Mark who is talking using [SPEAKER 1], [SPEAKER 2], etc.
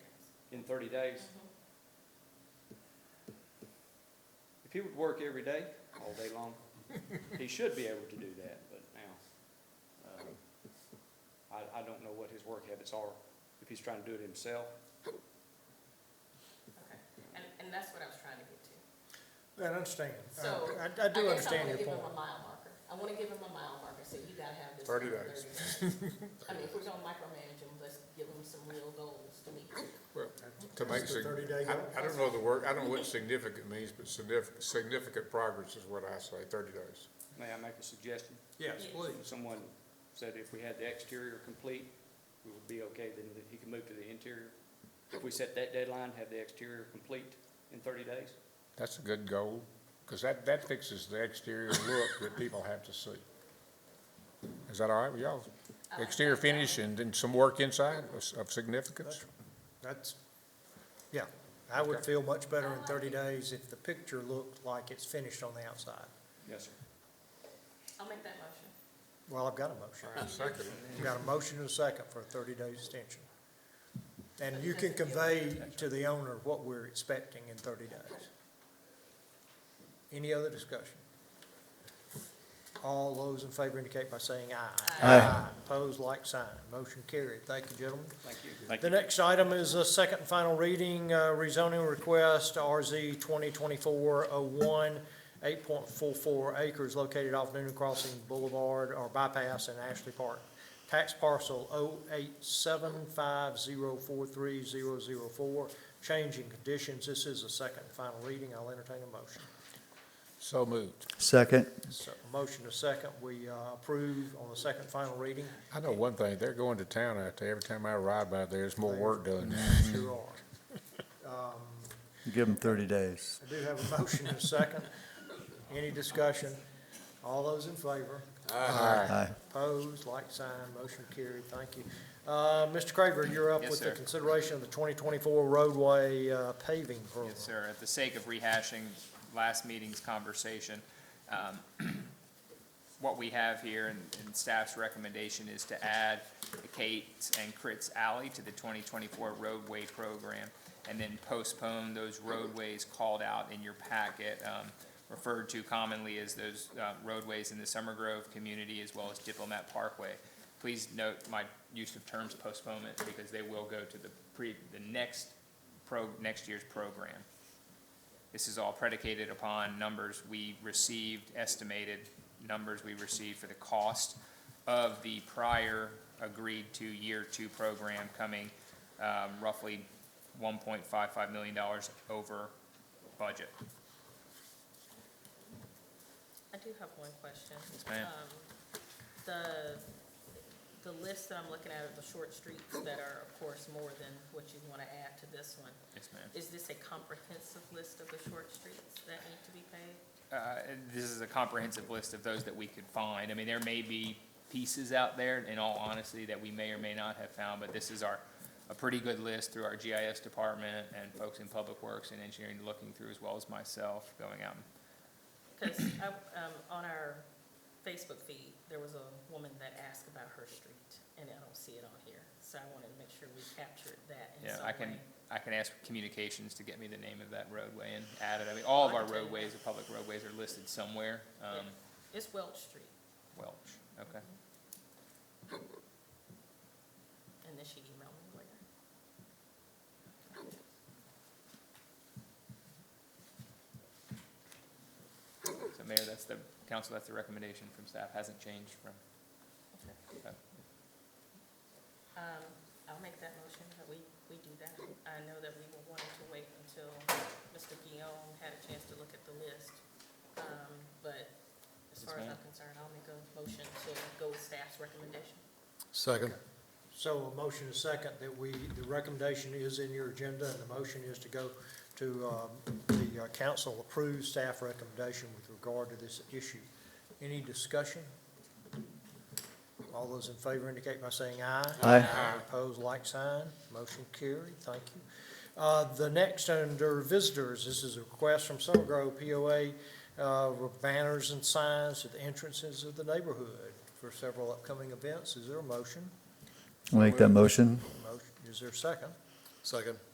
[SPEAKER 1] within thirty days. If he would work every day, all day long, he should be able to do that, but now, uh, I, I don't know what his work habits are, if he's trying to do it himself.
[SPEAKER 2] Okay, and, and that's what I was trying to get to.
[SPEAKER 3] I understand. I-
[SPEAKER 2] So.
[SPEAKER 3] I, I do
[SPEAKER 2] guess
[SPEAKER 3] understand
[SPEAKER 2] wanna
[SPEAKER 3] your
[SPEAKER 2] give
[SPEAKER 3] point.
[SPEAKER 2] him a mile marker. I wanna give him a mile marker, so you gotta have this.
[SPEAKER 4] 30
[SPEAKER 2] done in
[SPEAKER 4] days.
[SPEAKER 2] I mean, if we're gonna micromanage him, let's give him some real goals to meet.
[SPEAKER 4] Well, to make,
[SPEAKER 3] That's the
[SPEAKER 4] sig-
[SPEAKER 3] 30-day
[SPEAKER 4] I,
[SPEAKER 3] goal.
[SPEAKER 4] I don't know the word, I don't know what significant means, but significant, significant progress is what I say, thirty days.
[SPEAKER 1] May I make a suggestion?
[SPEAKER 3] Yes, please.
[SPEAKER 1] Someone said if we had the exterior complete, we would be okay, then he can move to the interior. If we set that deadline, have the exterior complete in thirty days?
[SPEAKER 4] That's a good goal, because that, that fixes the exterior look that people have to see. Is that all right with y'all?
[SPEAKER 2] I like
[SPEAKER 4] Exterior
[SPEAKER 2] that.
[SPEAKER 4] finish and then some work inside of s- of significance?
[SPEAKER 3] That's, yeah, I would
[SPEAKER 4] Okay.
[SPEAKER 3] feel much better in
[SPEAKER 2] I
[SPEAKER 3] thirty
[SPEAKER 2] like
[SPEAKER 3] days if the picture looked like it's finished on the outside.
[SPEAKER 1] Yes, sir.
[SPEAKER 2] I'll make that motion.
[SPEAKER 3] Well, I've got a motion.
[SPEAKER 4] I second it.
[SPEAKER 3] I've got a motion and a second for a thirty-day extension. And you can
[SPEAKER 2] Doesn't give
[SPEAKER 3] convey to the owner what we're expecting in thirty days. Any other discussion? All those in favor indicate by saying aye.
[SPEAKER 2] Aye.
[SPEAKER 3] Opposed, like sign. Motion carried. Thank you, gentlemen.
[SPEAKER 1] Thank you.
[SPEAKER 3] The next item is a second and final reading, uh, rezoning request, RZ 2024-01, 8.44 acres located off Noonan Crossing Boulevard or bypass in Ashley Park. Tax parcel 08750430004, changing conditions. This is a second and final reading. I'll entertain a motion.
[SPEAKER 4] So moved.
[SPEAKER 5] Second,
[SPEAKER 3] So, motion to second, we uh, approve on the second and final reading.
[SPEAKER 4] I know one thing, they're going to town out there. Every time I ride by there, there's more work done.
[SPEAKER 3] Sure are.
[SPEAKER 5] give them 30 days.
[SPEAKER 3] I do have a motion and a second. Any discussion? All those in favor?
[SPEAKER 5] Aye.
[SPEAKER 3] Opposed, like sign, motion carried, thank you. Uh, Mr. Craver, you're up
[SPEAKER 6] Yes,
[SPEAKER 3] with the
[SPEAKER 6] sir.
[SPEAKER 3] consideration of the 2024 roadway uh, paving program.
[SPEAKER 6] Yes, sir. At the sake of rehashing last meeting's conversation, um, what we have here and and staff's recommendation is to add the Kate's and Crit's Alley to the 2024 roadway program, and then postpone those roadways called out in your packet, um, referred to commonly as those uh, roadways in the Summer Grove community as well as Diplomat Parkway. Please note my use of terms postponement, because they will go to the pre, the next pro, next year's program. This is all predicated upon numbers we received, estimated numbers we received for the cost of the prior agreed-to year two program coming um, roughly $1.55 million over budget.
[SPEAKER 2] I do have one question.
[SPEAKER 6] Yes, ma'am.
[SPEAKER 2] Um, The, the list that I'm looking at of the short streets that are, of course, more than what you wanna add to this one,
[SPEAKER 6] Yes, ma'am.
[SPEAKER 2] is this a comprehensive list of the short streets that need to be paved?
[SPEAKER 6] Uh, This is a comprehensive list of those that we could find. I mean, there may be pieces out there, in all honesty, that we may or may not have found, but this is our, a pretty good list through our GIS department and folks in Public Works and Engineering looking through, as well as myself going out. and-
[SPEAKER 2] Because um, on our Facebook feed, there was a woman that asked about her street, and I don't see it on here. So I wanted to make sure we captured that in
[SPEAKER 6] Yeah,
[SPEAKER 2] some
[SPEAKER 6] I can,
[SPEAKER 2] way.
[SPEAKER 6] I can ask communications to get me the name of that roadway and add it. I mean, all of
[SPEAKER 2] I
[SPEAKER 6] our
[SPEAKER 2] can tell you.
[SPEAKER 6] roadways, the public roadways are listed somewhere. Um,
[SPEAKER 2] It's Welch Street,
[SPEAKER 6] Welch, okay.
[SPEAKER 2] and then she emailed me later.
[SPEAKER 6] So Mayor, that's the, council, that's the recommendation from staff, hasn't changed from,
[SPEAKER 2] Okay.
[SPEAKER 6] okay.
[SPEAKER 2] Um, I'll make that motion that we, we do that. I know that we were wanting to wait until Mr. Guillaume had a chance to look at the list. Um, But as
[SPEAKER 6] Yes,
[SPEAKER 2] far as
[SPEAKER 6] ma'am.
[SPEAKER 2] I'm concerned, I'll make a motion to go with staff's recommendation.
[SPEAKER 4] Second.
[SPEAKER 3] So a motion is second that we, the recommendation is in your agenda and the motion is to go to, um, the uh, council approves staff recommendation with regard to this issue. Any discussion? All those in favor indicate by saying aye.
[SPEAKER 5] Aye.
[SPEAKER 3] Opposed, like sign. Motion carried. Thank you. Uh, The next under visitors, this is a request from Summer Grove POA uh, with banners and signs at the entrances of the neighborhood for several upcoming events. Is there a motion?
[SPEAKER 5] I'll Make that motion.
[SPEAKER 3] Motion, is there a second?
[SPEAKER 4] Second.